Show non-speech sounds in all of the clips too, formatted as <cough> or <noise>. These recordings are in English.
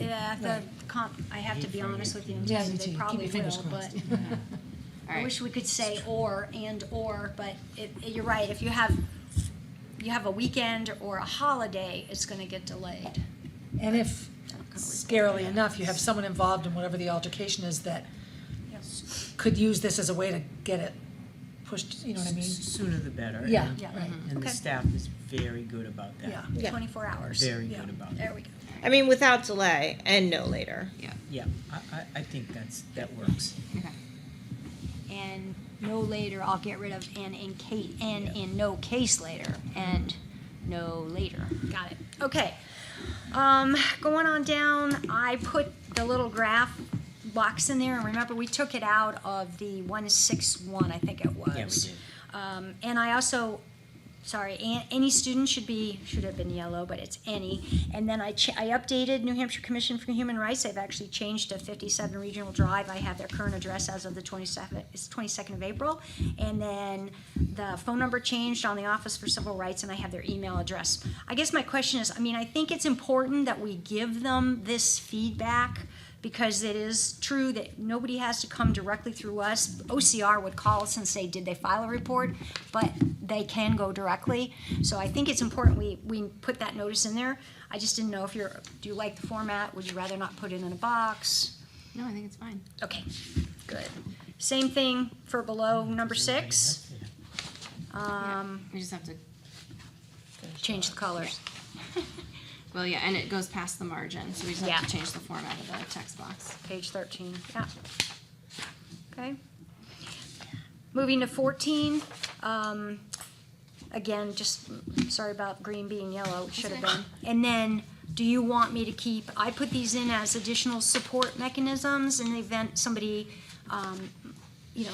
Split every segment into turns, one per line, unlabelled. Yeah, the comp, I have to be honest with you, and
Yeah,
tell you
me too.
they
Keep
probably
your fingers
will, but
crossed. <laughs>
<laughs>
All
I
right.
wish we could say or, and/or, but it, it- you're right, if you have, you have a weekend or a holiday, it's gonna get delayed.
And if,
Not gonna work.
scarily enough, you have someone involved in whatever the altercation is that
Yes.
could use this as a way to get it pushed, you know what I mean?
Sooner the better.
Yeah,
and-
Yeah.
right,
And
Okay.
the staff is very good about that.
yeah.
Yeah.
Twenty-four hours.
Very
Yeah.
good about
There
that.
we go.
I mean, without delay and no later.
Yeah, I, I, I think that's, that works.
Okay.
And no later, I'll get rid of and in case, and in no case later, and no later. Got it. Okay. Um, going on down, I put the little graph box in there, and remember, we took it out of the one six one, I think it was.
Yeah, we did.
Um, and I also, sorry, a- any student should be, should have been yellow, but it's any. And then I, ch- I updated New Hampshire Commission for Human Rights. I've actually changed to 57 Regional Drive. I have their current address as of the 27th, it's 22nd of April. And then the phone number changed on the Office for Civil Rights, and I have their email address. I guess my question is, I mean, I think it's important that we give them this feedback because it is true that nobody has to come directly through us. OCR would call us and say, did they file a report? But they can go directly. So I think it's important we, we put that notice in there. I just didn't know if you're, do you like the format? Would you rather not put it in a box?
No, I think it's fine.
Okay, good. Same thing for below number six,
Yeah.
Um. We just have to,
change the colors.
well, yeah, and it goes past the margin, so we just have to
Yeah.
change the format of the text box.
page thirteen, yeah. Okay. Moving to fourteen, um, again, just, mm, sorry about green being yellow, it should have
okay.
been. And then, do you want me to keep, I put these in as additional support mechanisms in the event somebody, um, you know,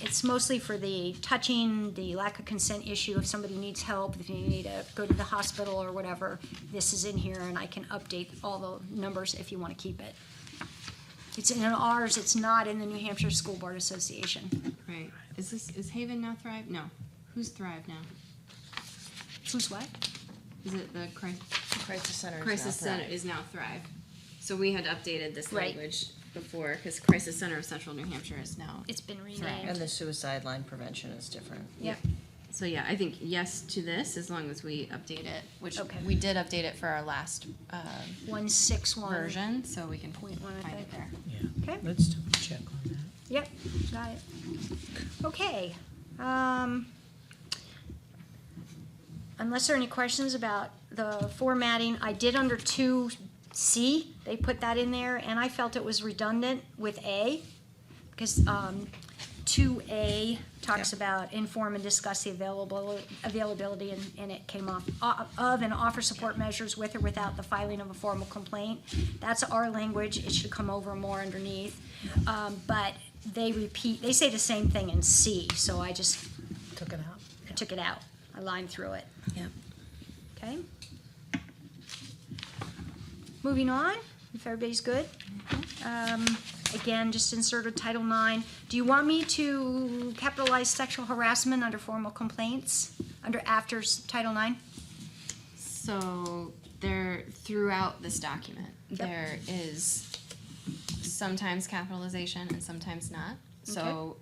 it's mostly for the touching, the lack of consent issue, if somebody needs help, if you need to go to the hospital or whatever, this is in here and I can update all the numbers if you wanna keep it. It's in ours, it's not in the New Hampshire School Board Association.
Right. Is this, is Haven now Thrive? No. Who's Thrive now?
Who's what?
Is it the cri-
Crisis center.
Crisis Center is now Thrive? So we had updated this
Right.
language before, because Crisis Center of Central New Hampshire is now.
It's been renamed.
And the suicide line prevention is different.
Yep,
So yeah, I think yes to this, as long as we update it, which
Okay.
we did update it for our last uh,
one six one.
version, so we can
Point one, I
find it
think.
there.
Yeah.
Okay.
Let's double check on that.
Yep, got it. Okay, um, unless there are any questions about the formatting, I did under two C, they put that in there, and I felt it was redundant with A, because, um, two A talks about inform and discuss the available, availability, and, and it came off, o- of and offer support measures with or without the filing of a formal complaint. That's our language, it should come over more underneath, um, but they repeat, they say the same thing in C, so I just
Took it out.
took it out. I lined through it.
Yep.
Okay. Moving on, if everybody's good. Um, again, just inserted Title IX. Do you want me to capitalize sexual harassment under formal complaints, under after s- Title IX?
So there, throughout this document, there is sometimes capitalization and sometimes not. So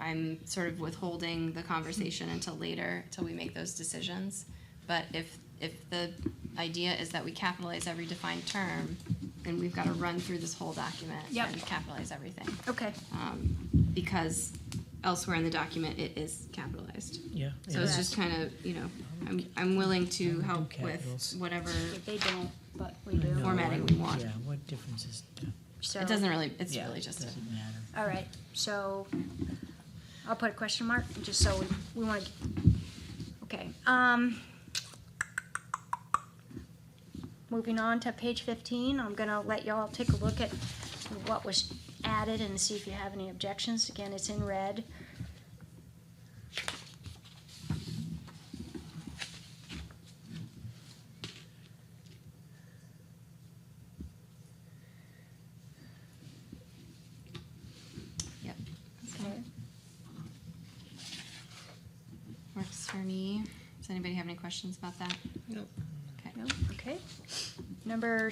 I'm sort of withholding the conversation until later, till we make those decisions. But if, if the idea is that we capitalize every defined term, then we've got to run through this whole document
Yep.
and capitalize everything.
Okay,
Um, because elsewhere in the document, it is capitalized.
Yeah.
So
yeah.
it's just kind of, you know, I'm, I'm willing to
do
help
capitals.
with whatever,
If they don't, but we do.
No,
formatting
what-
we want.
Yeah, what difference is?
So,
Mm-hmm. it doesn't really, it's
yeah,
really
it
just a.
Doesn't matter.
All right, so I'll put a question mark, just so we, we want to, okay. um, Moving on to page fifteen, I'm gonna let y'all take a look at what was added and see if you have any objections. Again, it's in red.
Yep. Works for me. Does anybody have any questions about that?
Nope.
Okay.
No? Okay. Number